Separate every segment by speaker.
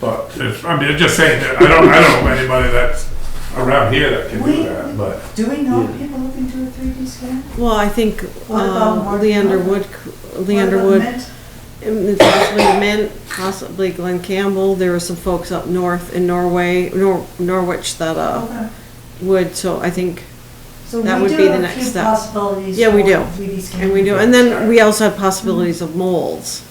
Speaker 1: But it's, I mean, I'm just saying, that I don't, I don't know anybody that's around here that can do that, but.
Speaker 2: Do we know if people who can do a 3D scan?
Speaker 3: Well, I think
Speaker 2: What about
Speaker 3: uh,
Speaker 2: Mark
Speaker 3: Leander
Speaker 2: Miller?
Speaker 3: Wood,
Speaker 2: What
Speaker 3: Leander
Speaker 2: about
Speaker 3: Wood,
Speaker 2: Mint?
Speaker 3: mm, possibly Mint, possibly Glenn Campbell. There were some folks up north in Norway, Nor- Norwich that uh,
Speaker 2: Okay.
Speaker 3: would, so I think,
Speaker 2: So
Speaker 3: that
Speaker 2: we
Speaker 3: would
Speaker 2: do
Speaker 3: be the
Speaker 2: have a
Speaker 3: next
Speaker 2: few
Speaker 3: step.
Speaker 2: Possibilities.
Speaker 3: Yeah, we
Speaker 2: for
Speaker 3: do.
Speaker 2: 3D scanning.
Speaker 3: and we do. And then we also have possibilities of molds.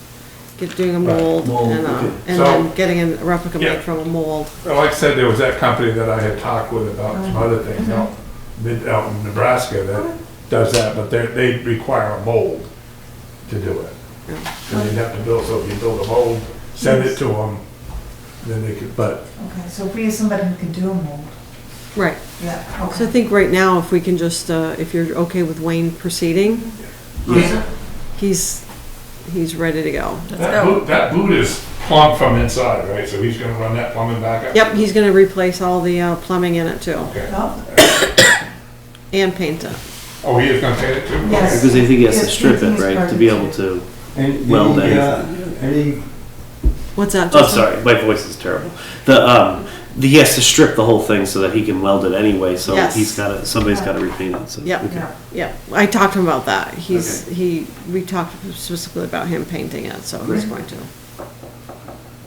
Speaker 3: Get, doing a mold
Speaker 4: mold,
Speaker 3: and, uh,
Speaker 4: okay.
Speaker 3: and
Speaker 1: So-
Speaker 3: then getting a replica
Speaker 1: Yeah.
Speaker 3: made from a mold.
Speaker 1: Well, Like I said, there was that company that I had talked with about
Speaker 3: Uh-huh.
Speaker 1: some other things out, mid, out in Nebraska that does that, but they, they require a mold to do it.
Speaker 3: Yeah.
Speaker 1: And you'd have to build, so if you build a mold, send it to them, then they could, but
Speaker 2: Okay, so if we have somebody who can do a mold,
Speaker 3: Right.
Speaker 2: yeah,
Speaker 3: So I
Speaker 2: okay.
Speaker 3: think right now, if we can just, uh, if you're okay with Wayne proceeding, he's, he's ready to go.
Speaker 1: that boot, that boot is plumbed from inside, right? So he's gonna run that plumbing back up?
Speaker 3: Yep, he's gonna replace all the uh, plumbing in it too,
Speaker 1: Okay.
Speaker 2: Oh,
Speaker 3: and paint it.
Speaker 1: Oh, he is gonna paint it too?
Speaker 2: Yes.
Speaker 5: Because I think he has to
Speaker 2: Yes,
Speaker 5: strip it,
Speaker 2: everything's
Speaker 5: right, to
Speaker 2: perfect.
Speaker 5: be able to,
Speaker 4: And
Speaker 5: Well, then-
Speaker 4: the, uh, any,
Speaker 3: What's that?
Speaker 5: oh,
Speaker 3: Justin?
Speaker 5: sorry, my voice is terrible. The, um, the, he has to strip the whole thing so that he can weld it anyway, so
Speaker 3: Yes.
Speaker 5: he's gotta, somebody's gotta repaint it, so.
Speaker 3: Yep.
Speaker 5: okay.
Speaker 2: yeah.
Speaker 3: Yeah, I talked to him about that. He's, he, we talked specifically about him painting it, so he's going to.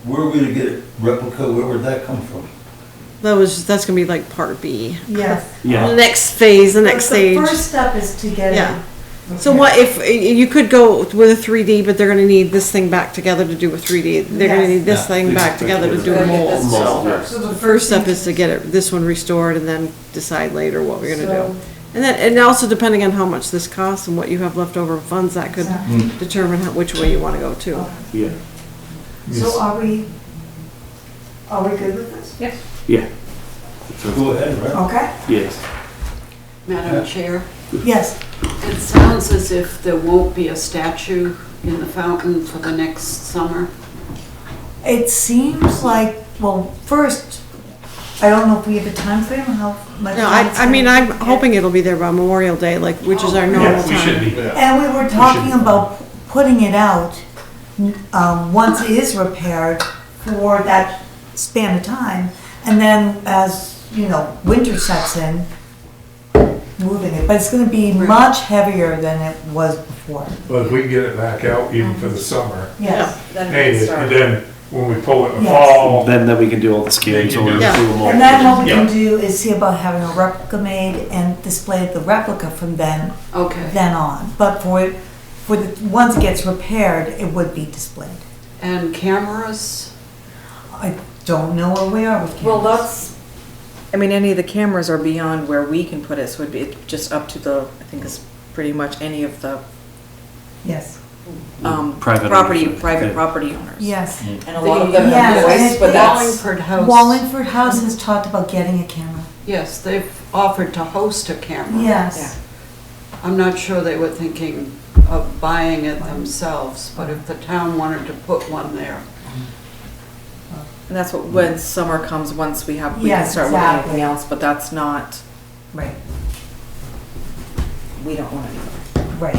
Speaker 4: where are we gonna get a replica, where would that come from?
Speaker 3: That was, that's gonna be like part B.
Speaker 2: Yes.
Speaker 3: The
Speaker 5: Yeah,
Speaker 3: next phase, the next
Speaker 2: So the
Speaker 3: stage.
Speaker 2: First step is to get
Speaker 3: Yeah.
Speaker 2: it.
Speaker 3: So what if, y- you could go with a three D, but they're gonna need this thing back together to do a three D. They're gonna
Speaker 2: Yes.
Speaker 3: need this
Speaker 4: Yeah.
Speaker 3: thing back together to do a mold,
Speaker 5: Mold,
Speaker 3: so.
Speaker 5: yeah.
Speaker 2: So
Speaker 3: The first step is to get it, this one restored and then decide later what we're gonna
Speaker 2: So-
Speaker 3: do. And then, and also depending on how much this costs and what you have left over in funds, that could
Speaker 2: Exactly.
Speaker 3: determine how, which way you wanna go too.
Speaker 2: Okay.
Speaker 5: yeah,
Speaker 2: So are we, are we good with this? Yes.
Speaker 5: yeah,
Speaker 4: Go ahead, right?
Speaker 2: Okay,
Speaker 5: yes.
Speaker 6: Madam Chair,
Speaker 2: yes,
Speaker 6: it sounds as if there won't be a statue in the fountain for the next summer.
Speaker 2: it seems like, well, first, I don't know if we have a timeframe, how much.
Speaker 3: No, I,
Speaker 2: time it's
Speaker 3: I mean,
Speaker 2: gonna-
Speaker 3: I'm hoping it'll be there by Memorial Day, like, which is
Speaker 2: Oh,
Speaker 3: our normal
Speaker 1: Yeah, we should
Speaker 3: time.
Speaker 1: be.
Speaker 2: And we were talking about putting it out, um, once it is repaired for that span of time. And then as, you know, winter sets in, moving it, but it's gonna be much heavier than it was before.
Speaker 1: But if we can get it back out even for the summer,
Speaker 2: Yes,
Speaker 1: paint it, and then when we pull it in the
Speaker 2: Yes.
Speaker 1: fall,
Speaker 5: Then, then we can do all the
Speaker 1: Oh. Then you
Speaker 5: scans, or
Speaker 1: do-
Speaker 5: we do
Speaker 3: Yeah.
Speaker 5: a
Speaker 2: and then
Speaker 5: mold.
Speaker 2: what we can do is see about having a replica made and display the replica from then,
Speaker 6: Okay,
Speaker 2: then on. But for, it- for the, once it gets repaired, it would be displayed.
Speaker 6: and cameras?
Speaker 2: I don't know where we are with cameras.
Speaker 7: Well, that's, I mean, any of the cameras are beyond where we can put it, so it'd be just up to the, I think it's pretty much any of the,
Speaker 2: Yes,
Speaker 7: um,
Speaker 5: Private
Speaker 7: property,
Speaker 5: owners, yeah.
Speaker 7: private property owners.
Speaker 2: yes.
Speaker 7: And a lot of them
Speaker 2: Yes,
Speaker 7: have voice,
Speaker 2: and
Speaker 7: but
Speaker 2: it's-
Speaker 7: that's,
Speaker 6: Wallingford House.
Speaker 2: Wallingford House has talked about getting a camera.
Speaker 6: Yes, they've offered to host a camera.
Speaker 2: Yes.
Speaker 6: I'm not sure they were thinking of buying it themselves, but if the town wanted to put one there,
Speaker 7: and that's what, when summer comes, once we have, we can
Speaker 2: Yes,
Speaker 7: start with anything
Speaker 2: exactly.
Speaker 7: else, but that's not,
Speaker 2: Right,
Speaker 7: we don't want anything.
Speaker 2: right.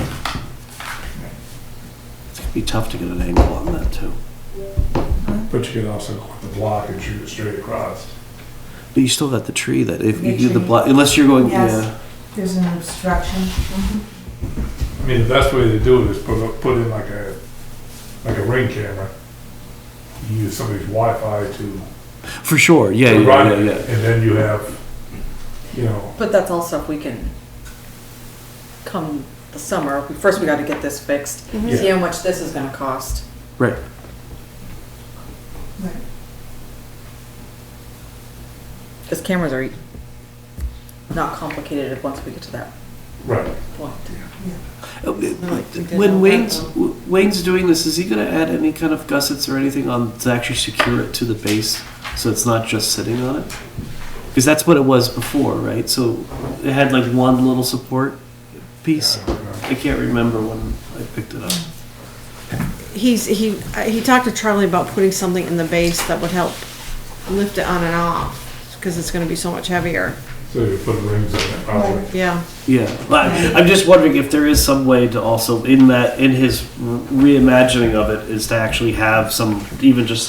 Speaker 5: It'd Be tough to get an angle on that too.
Speaker 1: but you can also go with the block and shoot it straight across.
Speaker 5: But you still got the tree that if you
Speaker 2: The
Speaker 5: do the
Speaker 2: tree.
Speaker 5: block, unless you're going,
Speaker 2: Yes.
Speaker 5: yeah.
Speaker 2: There's an obstruction.
Speaker 1: I mean, the best way to do it is put, a- put in like a, like a ring camera. You Use somebody's Wi-Fi to
Speaker 5: For sure, yeah,
Speaker 1: to
Speaker 5: yeah,
Speaker 1: run
Speaker 5: yeah,
Speaker 1: it,
Speaker 5: yeah.
Speaker 1: and then you have, you know,
Speaker 7: But that's all stuff we can, come the summer, we- first we gotta get this fixed,
Speaker 1: Yeah.
Speaker 7: see how much this is gonna cost.
Speaker 5: Right.
Speaker 2: Right.
Speaker 7: Cause cameras are e- not complicated once we get to that
Speaker 1: right.
Speaker 7: point.
Speaker 5: Uh,
Speaker 6: think they
Speaker 5: When
Speaker 6: know
Speaker 5: Wayne's,
Speaker 6: that,
Speaker 5: Wayne's doing this, is he gonna add any kind of gussets or anything on to actually secure it to the base, so it's not just sitting on it? Because that's what it was before, right? So it had like one little support piece. I can't remember when I picked it up.
Speaker 3: He's, he, uh, he talked to Charlie about putting something in the base that would help lift it on and off, because it's gonna be so much heavier.
Speaker 1: So you put rings on it, probably.
Speaker 3: Yeah,
Speaker 5: Yeah, but I'm just wondering if there is some way to also in that in his reimagining of it is to actually have some even just